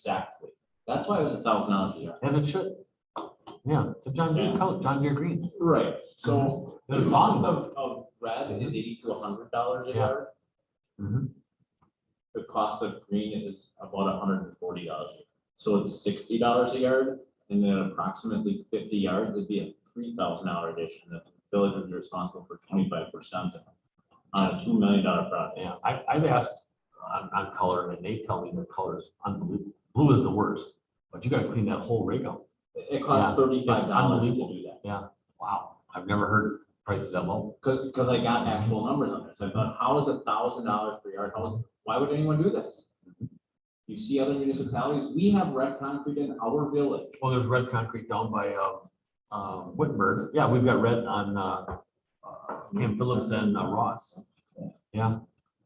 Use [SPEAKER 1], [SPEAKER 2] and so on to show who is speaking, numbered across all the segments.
[SPEAKER 1] exactly. That's why it was a thousand dollars a yard.
[SPEAKER 2] As it should. Yeah, it's a John Deere
[SPEAKER 1] Yeah.
[SPEAKER 2] color, John Deere green.
[SPEAKER 1] Right, so the
[SPEAKER 2] This is
[SPEAKER 1] cost
[SPEAKER 2] awesome.
[SPEAKER 1] of, of red is eighty to hundred dollars a
[SPEAKER 2] Yeah.
[SPEAKER 1] yard.
[SPEAKER 2] Mhm.
[SPEAKER 1] The cost of green is about hundred and forty dollars. So it's sixty dollars a yard, and then approximately fifty yards, it'd be a three thousand dollar addition. The village would be responsible for twenty-five percent on a two million dollar project.
[SPEAKER 2] Yeah, I, I've asked on, on color and they tell me their color is unbelievable. Blue is the worst, but you gotta clean that whole rig out.
[SPEAKER 1] It it costs thirty-five dollars to
[SPEAKER 2] unbelievable.
[SPEAKER 1] do that.
[SPEAKER 2] Wow, I've never heard prices that low.
[SPEAKER 1] Cause, 'cause I got actual numbers on this. I thought, how is a thousand dollars per yard? How is, why would anyone do this? You see other municipalities, we have red concrete in our village.
[SPEAKER 2] Well, there's red concrete down by, um, um, Whitburn. Yeah, we've got red on, uh, uh, Camp Phillips and uh, Ross
[SPEAKER 3] Uh,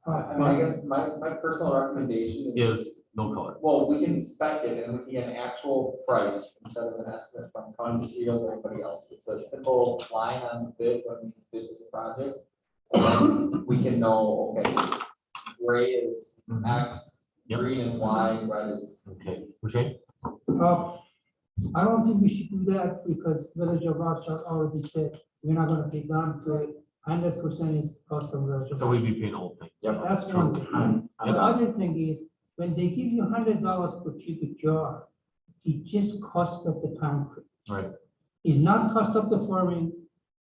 [SPEAKER 3] I mean, I guess my, my personal recommendation is,
[SPEAKER 2] is no color.
[SPEAKER 3] well, we can spec it and it would be an actual price instead of an estimate from County Mosquitoes or anybody else. It's a simple line on the bid when we bid this project. And then We can know, okay, gray is X,
[SPEAKER 2] Mm-hmm. Yep.
[SPEAKER 3] green is Y, red is.
[SPEAKER 2] Okay, Boucher?
[SPEAKER 4] Uh, I don't think we should do that because Village of Rothschild already said, we're not gonna pay down to it. Hundred percent is cost of Village of
[SPEAKER 2] So we'd
[SPEAKER 4] Rothschild.
[SPEAKER 2] be paying the whole thing. uh,
[SPEAKER 1] Yep.
[SPEAKER 4] That's one thing.
[SPEAKER 2] Yeah.
[SPEAKER 4] The other thing is, when they give you hundred dollars per cubic jar, it just cost of the concrete.
[SPEAKER 2] Right.
[SPEAKER 4] It's not cost of the forming,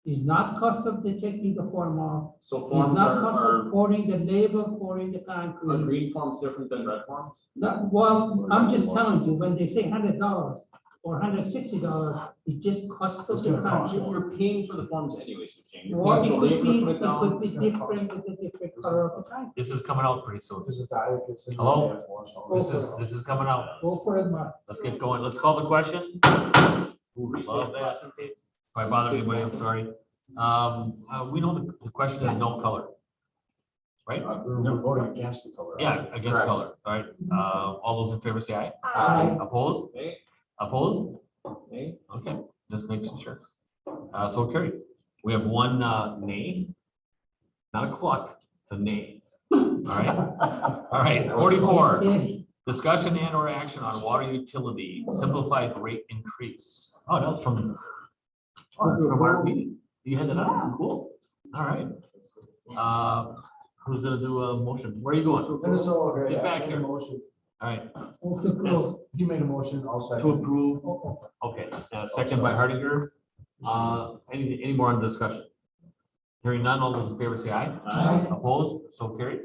[SPEAKER 4] it's not cost of the taking the form off,
[SPEAKER 1] So
[SPEAKER 4] it's
[SPEAKER 1] forms
[SPEAKER 4] not
[SPEAKER 1] are,
[SPEAKER 4] cost of
[SPEAKER 1] are,
[SPEAKER 4] pouring the labor, pouring the
[SPEAKER 1] are
[SPEAKER 4] concrete.
[SPEAKER 1] green forms different than red forms?
[SPEAKER 4] That, well, I'm just telling you, when they say hundred dollars or hundred sixty dollars, it just costs
[SPEAKER 2] It's
[SPEAKER 4] us the
[SPEAKER 2] gonna cost
[SPEAKER 4] country.
[SPEAKER 1] You're you're paying for the forms anyways, so Shane. You're
[SPEAKER 4] Or
[SPEAKER 1] paying
[SPEAKER 4] it
[SPEAKER 1] for
[SPEAKER 4] could
[SPEAKER 1] labor
[SPEAKER 4] be,
[SPEAKER 1] to put
[SPEAKER 4] it
[SPEAKER 1] down.
[SPEAKER 4] could be different with a different color of the time.
[SPEAKER 2] This is coming out pretty soon.
[SPEAKER 5] There's a diet that's in.
[SPEAKER 2] Hello?
[SPEAKER 4] Go
[SPEAKER 2] This
[SPEAKER 4] for
[SPEAKER 2] is,
[SPEAKER 4] it.
[SPEAKER 2] this is coming out.
[SPEAKER 4] Go for it, Mark.
[SPEAKER 2] Let's get going. Let's call the question.
[SPEAKER 1] Restate the question, please.
[SPEAKER 2] If I bother anybody, I'm sorry. Um, uh, we know the, the question is no color. Right?
[SPEAKER 5] We're voting against the color.
[SPEAKER 2] Yeah, against
[SPEAKER 1] Correct.
[SPEAKER 2] color, all right? Uh, all those in favor say aye.
[SPEAKER 4] Aye.
[SPEAKER 2] Opposed?
[SPEAKER 1] Okay,
[SPEAKER 2] Opposed?
[SPEAKER 1] okay.
[SPEAKER 2] Okay, just making sure. Uh, so carried. We have one, uh, nay. Not a cluck, it's a nay. All right, all right, forty-four.
[SPEAKER 4] Okay.
[SPEAKER 2] Discussion and or action on water utility simplified rate increase. Oh, that was from. Oh, that's from our meeting. You had that on, cool. All right. Uh, who's gonna do a motion? Where are you going? All
[SPEAKER 5] Minnesota.
[SPEAKER 2] Get
[SPEAKER 5] yeah,
[SPEAKER 2] back
[SPEAKER 5] made a
[SPEAKER 2] here.
[SPEAKER 5] motion.
[SPEAKER 2] right,
[SPEAKER 4] Move to close.
[SPEAKER 5] He made a motion, I'll
[SPEAKER 2] to
[SPEAKER 5] second.
[SPEAKER 2] approve. Okay, uh, second by Hardinger. Uh, any, any more on discussion? Hearing none, all those in favor say aye.
[SPEAKER 1] Aye.
[SPEAKER 2] Opposed, so carried.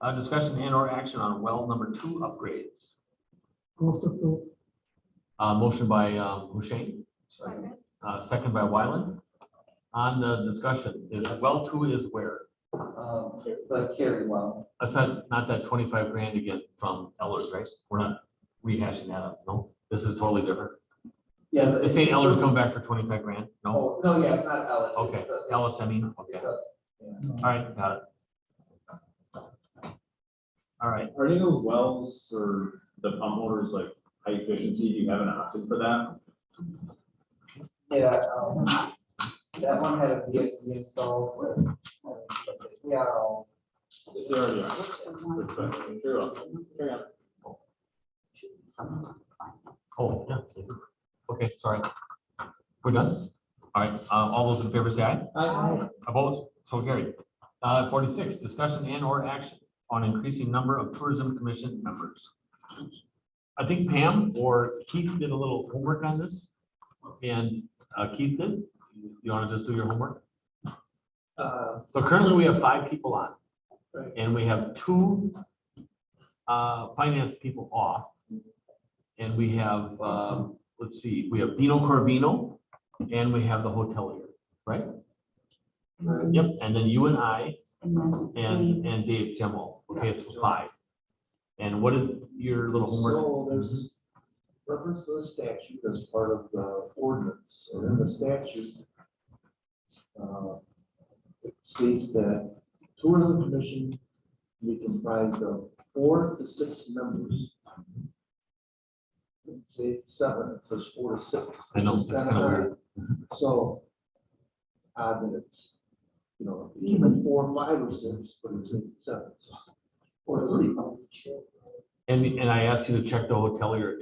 [SPEAKER 2] Uh, discussion and or action on well number two upgrades.
[SPEAKER 4] Move to close.
[SPEAKER 2] Uh, motion by, um, Hushain.
[SPEAKER 5] Second.
[SPEAKER 2] Uh, second by Wyland. On the discussion, is well two is where?
[SPEAKER 3] Um, it's the carry well.
[SPEAKER 2] That's not, not that twenty-five grand again from Ellers, right? We're not rehashing that up, no? This is totally different.
[SPEAKER 3] Yeah.
[SPEAKER 2] It's saying Ellers coming back for twenty-five grand, no?
[SPEAKER 3] Oh, no, yeah, it's not Ellis. it's
[SPEAKER 2] Okay,
[SPEAKER 3] the-
[SPEAKER 2] Ellis, I mean,
[SPEAKER 3] It's
[SPEAKER 2] okay,
[SPEAKER 3] a
[SPEAKER 2] all right, got it. All right,
[SPEAKER 1] Are any of those wells or the pump motors like high efficiency? Do you have an option for that?
[SPEAKER 3] Yeah, um, that one had a VFD installed, so, um, we are all.
[SPEAKER 1] They already are. Good question. Very well. Carry on.
[SPEAKER 2] oh, yeah. Okay, sorry. We're done? All right, uh, all those in favor say aye.
[SPEAKER 4] Aye.
[SPEAKER 2] Opposed? So carried. Uh, forty-six, discussion and or action on increasing number of tourism commission members. I think Pam or Keith did a little homework on this. And uh, Keith did. You want to just do your homework?
[SPEAKER 3] Uh,
[SPEAKER 2] So currently we have five people on.
[SPEAKER 3] Right.
[SPEAKER 2] And we have two uh, finance people off. And we have, um, let's see, we have Dino Corvino and we have the hotelier, right? Yep, and then you and I and, and Dave Gemmell. Okay, it's five. And what is your little Mm-hmm. homework?
[SPEAKER 6] So there's reference to the statute as part of the ordinance, and in the statute, uh, it states that tourism commission will be comprised of four to six members. It say seven, it says four to six. Mm-hmm.
[SPEAKER 2] I know, it's kind of weird.
[SPEAKER 6] So, odd that it's, you know, even four, five or six, but it's seven, so. Or three.
[SPEAKER 2] And, and I asked you to check the hotelier